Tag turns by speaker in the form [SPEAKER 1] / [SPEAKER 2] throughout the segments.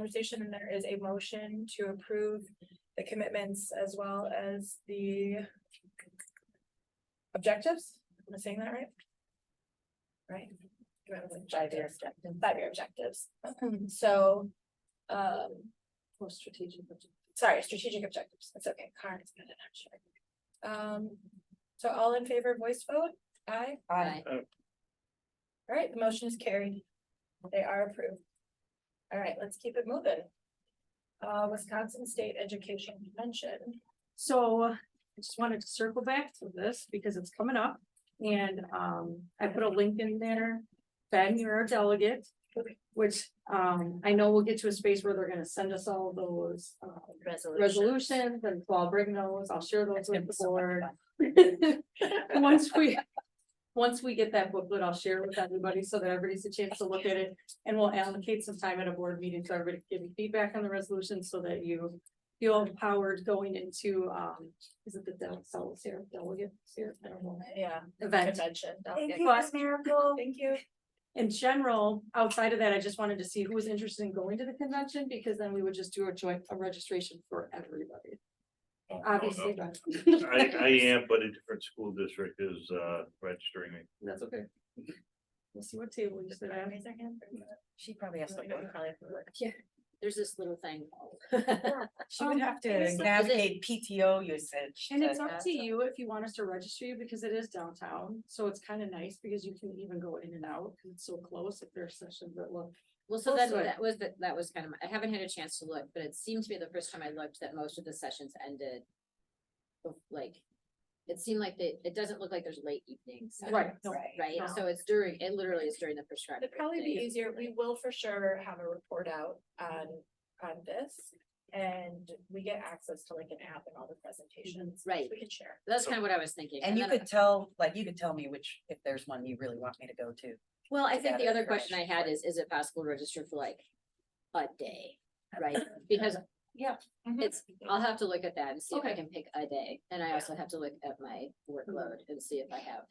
[SPEAKER 1] conversation and there is a motion to approve the commitments as well as the objectives. Am I saying that right? Right?
[SPEAKER 2] Five-year
[SPEAKER 1] Five-year objectives. So, um,
[SPEAKER 2] More strategic.
[SPEAKER 1] sorry, strategic objectives. That's okay. Karen's got it, I'm sure. Um, so all in favor, voice vote? Aye.
[SPEAKER 2] Aye.
[SPEAKER 1] All right, the motion is carried. They are approved. All right, let's keep it moving. Uh, Wisconsin State Education Convention.
[SPEAKER 2] So I just wanted to circle back to this because it's coming up and um I put a link in there. Ben, you're a delegate, which um I know we'll get to a space where they're gonna send us all those uh resolutions and so I'll bring those, I'll share those with the board. Once we, once we get that booklet, I'll share it with everybody so that everybody's a chance to look at it. And we'll allocate some time at a board meeting so everybody can give you feedback on the resolution so that you feel empowered going into, um, is it the Del, Sol, Sarah, Delegate, Sarah, I don't know,
[SPEAKER 1] Yeah.
[SPEAKER 2] event.
[SPEAKER 1] Convention.
[SPEAKER 2] you, Miss
[SPEAKER 1] Miracle. Thank you.
[SPEAKER 2] In general, outside of that, I just wanted to see who was interested in going to the convention because then we would just do a joint, a registration for everybody. Obviously, but-
[SPEAKER 3] Oh, I, I am, but a different school district is, uh, registering me.
[SPEAKER 2] That's okay. We'll see what table you sit at.
[SPEAKER 1] Raise their hand for a minute.
[SPEAKER 4] She probably has to
[SPEAKER 1] Really?
[SPEAKER 4] go,
[SPEAKER 5] Mm-hmm.
[SPEAKER 4] probably have to work.
[SPEAKER 2] Yeah.
[SPEAKER 4] There's this little thing.
[SPEAKER 5] She would have
[SPEAKER 2] it's
[SPEAKER 5] to
[SPEAKER 2] like-
[SPEAKER 5] navigate PTO usage.
[SPEAKER 2] And it's
[SPEAKER 5] to-
[SPEAKER 2] up to you if you want us to register you because it is downtown, so it's kind of nice because you can even go in and out because it's so close if there are sessions that look.
[SPEAKER 4] Well, so
[SPEAKER 1] Oh,
[SPEAKER 2] We'll
[SPEAKER 4] that,
[SPEAKER 2] see.
[SPEAKER 4] that was, the- that was kind of, my- I haven't had a chance to look, but it seemed to me the first time I looked that most of the sessions ended. bef- Like, it seemed like they, it doesn't look like there's late evenings.
[SPEAKER 2] Right, no,
[SPEAKER 5] Right.
[SPEAKER 4] Right,
[SPEAKER 2] no.
[SPEAKER 4] so it's during, it literally is during the prescribed.
[SPEAKER 1] It'd probably be
[SPEAKER 4] break.
[SPEAKER 1] easier, we will for sure have a report out on, on this. And we get access to like an app and all the presentations.
[SPEAKER 4] Right.
[SPEAKER 1] We can share.
[SPEAKER 4] That's kind of what I was thinking.
[SPEAKER 5] And you
[SPEAKER 4] then-
[SPEAKER 5] could tell, like, you could tell me which, if there's one you really want me to go to.
[SPEAKER 4] Well, I think
[SPEAKER 5] gather
[SPEAKER 4] the other question I
[SPEAKER 5] information
[SPEAKER 4] had
[SPEAKER 5] for
[SPEAKER 4] is, is it possible to register for like a day, right? Because it's, I'll have to look at that and see if I
[SPEAKER 2] Okay.
[SPEAKER 4] can pick a day. And I
[SPEAKER 1] Yeah. Mm-hmm.
[SPEAKER 4] also have to look at my workload and see if I have,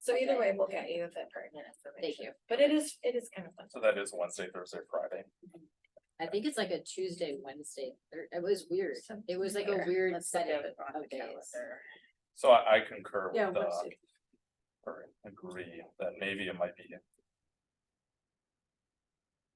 [SPEAKER 1] So either way, we'll get you the pertinent
[SPEAKER 4] thank
[SPEAKER 1] information.
[SPEAKER 4] you.
[SPEAKER 1] But it is, it is kind of fun.
[SPEAKER 6] So that is Wednesday, Thursday, Friday.
[SPEAKER 4] I think it's like a Tuesday, Wednesday, Thir- it was weird. It was like a
[SPEAKER 5] Here,
[SPEAKER 4] weird
[SPEAKER 5] let's look
[SPEAKER 4] setting
[SPEAKER 5] at it on the
[SPEAKER 4] of days.
[SPEAKER 5] calendar.
[SPEAKER 6] So I, I concur
[SPEAKER 2] Yeah,
[SPEAKER 6] with, uh,
[SPEAKER 2] Wednesday.
[SPEAKER 6] or agree that maybe it might be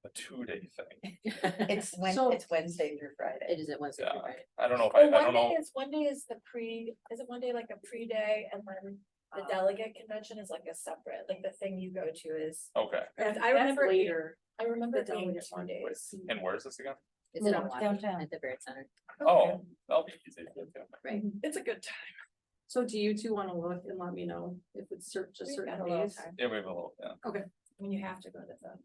[SPEAKER 6] a two-day thing.
[SPEAKER 4] It
[SPEAKER 5] It's Wed-
[SPEAKER 2] So-
[SPEAKER 5] it's Wednesday through Friday.
[SPEAKER 4] is at Wednesday,
[SPEAKER 6] Yeah,
[SPEAKER 4] through Friday.
[SPEAKER 6] I don't know if I,
[SPEAKER 1] Well, one
[SPEAKER 6] I don't
[SPEAKER 1] day
[SPEAKER 6] know,
[SPEAKER 1] is, one day is the pre, is it one day like a pre-day and then the
[SPEAKER 2] Um,
[SPEAKER 1] delegate convention is like a separate, like the thing you go to is.
[SPEAKER 6] okay,
[SPEAKER 1] I
[SPEAKER 2] that's
[SPEAKER 1] remember it being-
[SPEAKER 2] later.
[SPEAKER 1] I remember
[SPEAKER 2] The
[SPEAKER 1] it being
[SPEAKER 2] delegate
[SPEAKER 1] two
[SPEAKER 2] one.
[SPEAKER 1] days.
[SPEAKER 6] and where is this again?
[SPEAKER 4] It's in
[SPEAKER 2] No,
[SPEAKER 5] downtown.
[SPEAKER 4] Milwaukee at the Barrett Center.
[SPEAKER 6] Oh, that'll be easy. to do.
[SPEAKER 4] Right.
[SPEAKER 1] It's a good time.
[SPEAKER 2] So do you two want to look and let me know if it's cer- just
[SPEAKER 1] We've
[SPEAKER 2] certain
[SPEAKER 1] got a little
[SPEAKER 2] days?
[SPEAKER 1] time.
[SPEAKER 6] Yeah, we have a little, yeah,
[SPEAKER 1] When you have to go to the.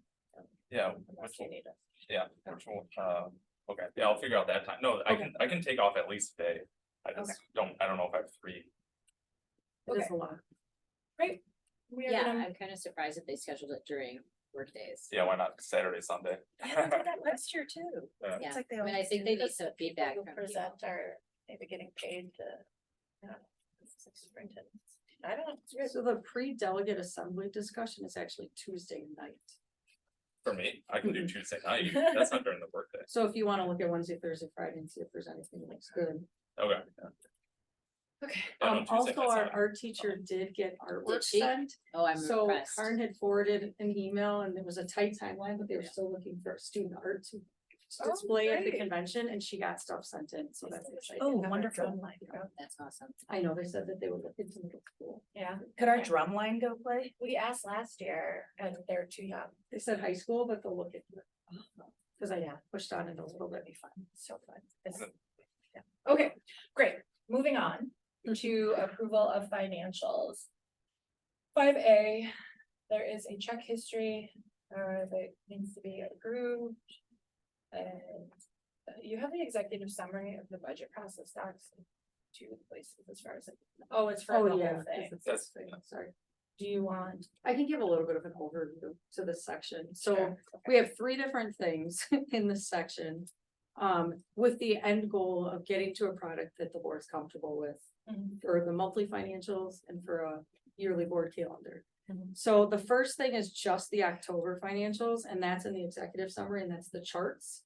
[SPEAKER 6] yeah,
[SPEAKER 1] unless
[SPEAKER 6] which
[SPEAKER 1] you
[SPEAKER 6] will,
[SPEAKER 1] need it.
[SPEAKER 6] yeah, which will, uh, okay, yeah, I'll figure out that time. No, I can, I can take off at least a day. I just don't, I don't know if I have three.
[SPEAKER 2] It is a lot.
[SPEAKER 1] We are
[SPEAKER 4] Yeah,
[SPEAKER 1] gonna-
[SPEAKER 4] I'm kind of surprised that they scheduled it during workdays.
[SPEAKER 6] Yeah, why not Saturday, Sunday?
[SPEAKER 5] Yeah, they did that Last year too.
[SPEAKER 6] Yeah.
[SPEAKER 5] It's like they
[SPEAKER 4] I mean, I
[SPEAKER 5] always
[SPEAKER 4] think
[SPEAKER 5] do
[SPEAKER 4] they
[SPEAKER 5] this.
[SPEAKER 4] need some feedback
[SPEAKER 1] People
[SPEAKER 4] from people.
[SPEAKER 1] Present are maybe getting paid to. I don't know, it's like superintendents. I don't know. it's weird.
[SPEAKER 2] So the pre-delegate assembly discussion is actually Tuesday night.
[SPEAKER 6] For me, I can do Tuesday night. That's not during the workday.
[SPEAKER 2] So if you want to look at Wednesday, Thursday, Friday and see if there's anything that looks good.
[SPEAKER 6] Okay.
[SPEAKER 1] Okay.
[SPEAKER 6] Yeah, no,
[SPEAKER 2] Um,
[SPEAKER 6] Tuesday
[SPEAKER 2] also,
[SPEAKER 6] night,
[SPEAKER 2] our
[SPEAKER 6] Saturday.
[SPEAKER 2] art teacher did get artwork
[SPEAKER 4] she?
[SPEAKER 2] sent.
[SPEAKER 4] Oh, I'm
[SPEAKER 2] So
[SPEAKER 4] impressed.
[SPEAKER 2] Karen had forwarded an email and there was a tight timeline, but they were still looking for student art to
[SPEAKER 1] Oh,
[SPEAKER 2] display at the
[SPEAKER 1] great.
[SPEAKER 2] convention and she got stuff sent in, so that's
[SPEAKER 1] Oh,
[SPEAKER 2] exciting.
[SPEAKER 5] Oh, wonderful.
[SPEAKER 1] Online, yeah.
[SPEAKER 4] That's awesome.
[SPEAKER 2] I know, they said that they would look into middle school.
[SPEAKER 1] Yeah,
[SPEAKER 5] Could our drum line go play?
[SPEAKER 1] we asked last year and they're too young.
[SPEAKER 2] They said high school, but they'll look at. uh, Cause I
[SPEAKER 1] Yeah.
[SPEAKER 2] pushed on it a little bit. Be fun.
[SPEAKER 1] So fun. It's-
[SPEAKER 2] Uh-huh.
[SPEAKER 1] yeah. Okay, great. Moving on
[SPEAKER 2] Mm-hmm.
[SPEAKER 1] to approval of financials. Five A, there is a check history uh that needs to be approved. And uh, you have the executive summary of the budget process docs. in Two places as far as, oh, it's for the
[SPEAKER 2] Oh,
[SPEAKER 1] whole
[SPEAKER 2] yeah.
[SPEAKER 1] thing.
[SPEAKER 6] That's-
[SPEAKER 2] Sorry.
[SPEAKER 1] Do you want?
[SPEAKER 2] I can give a little bit of an overview to this section. So
[SPEAKER 1] Sure.
[SPEAKER 2] we have three different things in this section. Um, with the end goal of getting to a product that the board's comfortable with
[SPEAKER 1] Mhm.
[SPEAKER 2] for the monthly financials and for a yearly board calendar. So the first thing is just the October financials, and that's in the executive summary, and that's the charts.